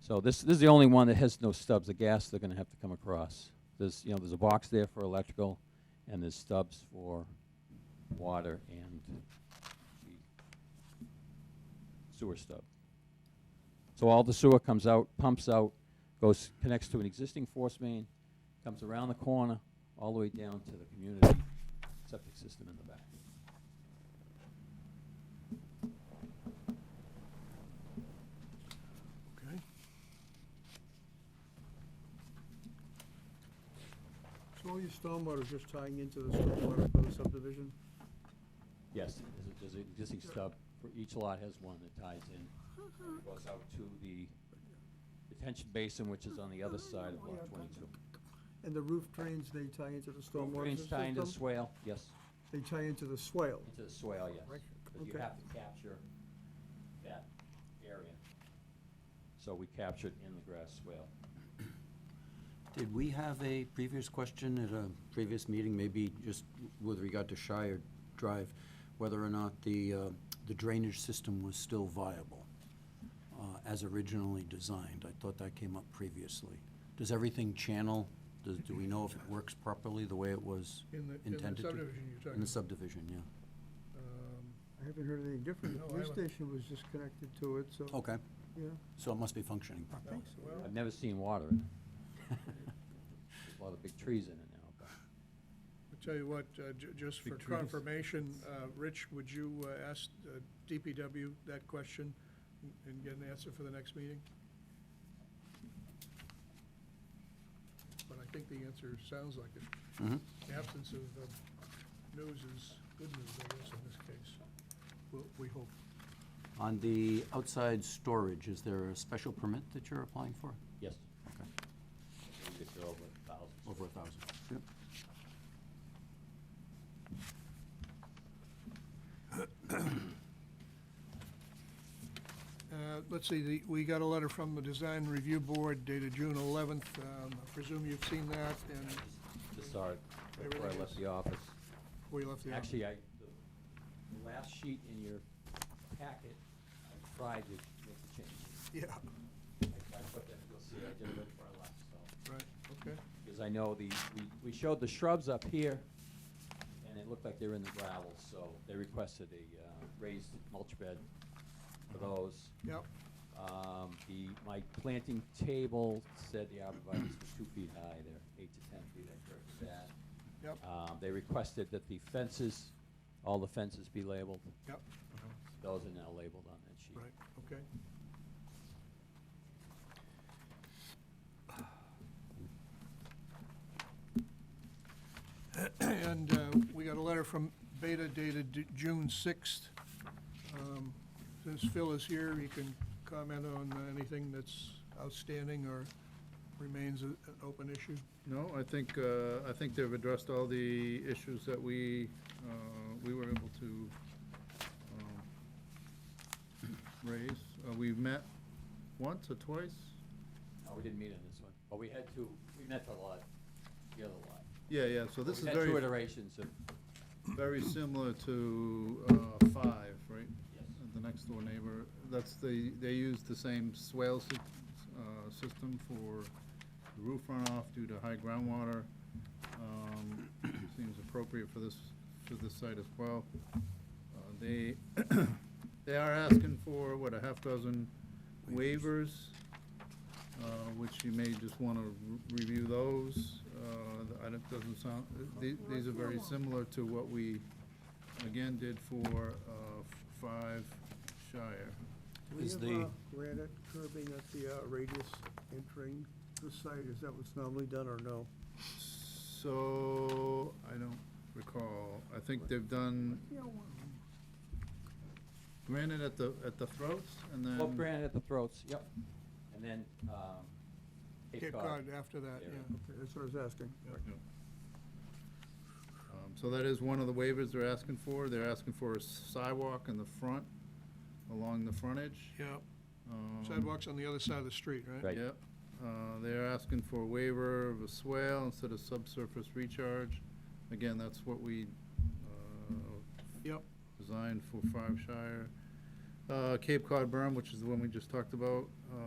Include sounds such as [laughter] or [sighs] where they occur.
So this, this is the only one that has no stubs, the gas they're gonna have to come across. There's, you know, there's a box there for electrical, and there's stubs for water and the sewer stub. So all the sewer comes out, pumps out, goes, connects to an existing force main, comes around the corner, all the way down to the community septic system in the back. Okay. So all your stormwater is just tying into the stormwater for the subdivision? Yes, there's a- there's an existing stub, for each lot has one that ties in, and goes out to the detention basin, which is on the other side of lot twenty-two. And the roof drains, they tie into the stormwater Drains tie into the system? swale, yes, They tie into the swale? into the swale, yes, Right, because you okay. have to capture that area. So we captured in the grass swale. Did we have a previous question at a previous meeting, maybe just with regard to Shire Drive, whether or not the, uh, the drainage system was still viable uh, as originally designed? I thought that came up previously. Does everything channel, does, do we know if it works properly the way it was In the- in the intended to? subdivision you're talking In the about. subdivision, yeah. Um, I haven't heard anything different. No, The I police haven't. station was just connected to it, Oh. so, Okay, yeah. so it must be functioning properly. Well, I've never seen water in it. There's [laughs] A lot of big trees in it now, but I'll tell you what, uh, ju- just for confirmation, uh, Rich, would you uh, ask uh, DPW that question and get an answer for the next meeting? But I think the answer sounds like it. Mhm. The absence of uh, news is good news, I guess, in this case. We'll- We hope. Mm-hmm. On the outside storage, is there a special permit that you're applying for? yes. Okay. We could go over a thousand. Over a thousand? Yep. Uh, Let's see, the- we got a letter from the Design Review Board dated June 11th. Um, I presume you've seen that, and Just saw it before I Everything left is- the office. before you left the office. Actually, I, the- the last sheet in your packet, I tried to make the change. Yeah, I I put that, you'll see, I did it before I left, so. right, okay. Because I know the, we- we showed the shrubs up here, and it looked like they were in the gravel, so they requested a uh, raised mulch bed for those. Yep, Um, The, my planting table said the arborvitae's were two feet high, they're eight to ten feet, I corrected that. yep, Um, They requested that the fences, all the fences be labeled. Mm-hmm. yep, Those are now labeled on that sheet. right, okay. [sighs] And uh, we got a letter from Beta dated Ju- June 6th. Um, Since Phil is here, he can comment on anything that's outstanding or remains a- an open issue. No, I think, uh, I think they've addressed all the issues that we, uh, we were able to um, raise. Uh, We've met once or twice? No, we didn't meet on this one, but we had two, we met a lot, the other lot. Yeah, yeah, so But this is We had two very, iterations of, very similar to uh, five, right? Yes. The next door neighbor, that's the, they use the same swale sy- uh, system for roof runoff due to high groundwater. Um, [coughs] Seems appropriate for this, for this site as well. Uh, They, [coughs] they are asking for, what, a half dozen waivers, uh, which you may just want to review those. Uh, I don't- Doesn't sound, the- these are very similar to what we, again, did for uh, Five Shire. Do we Is have the- uh, granite curbing at the uh, radius entering the site? Is that what's normally done or no? So, I don't recall, I think they've done granite at the, at the throats, and then. well, granite at the throats, yep. And then, um, Cape Cape Cod. Cod after that, area. yeah. Okay, that's what I was asking. Yep. Um, So that is one of the waivers they're asking for, they're asking for a sidewalk in the front, along the frontage. Yeah, Um, sidewalks on the other side of the street, right? Right. Yep. Uh, They're asking for a waiver of a swale instead of subsurface recharge. Again, that's what we uh, Yep, designed for Five Shire. Uh, Cape Cod berm, which is the one we just talked about, uh,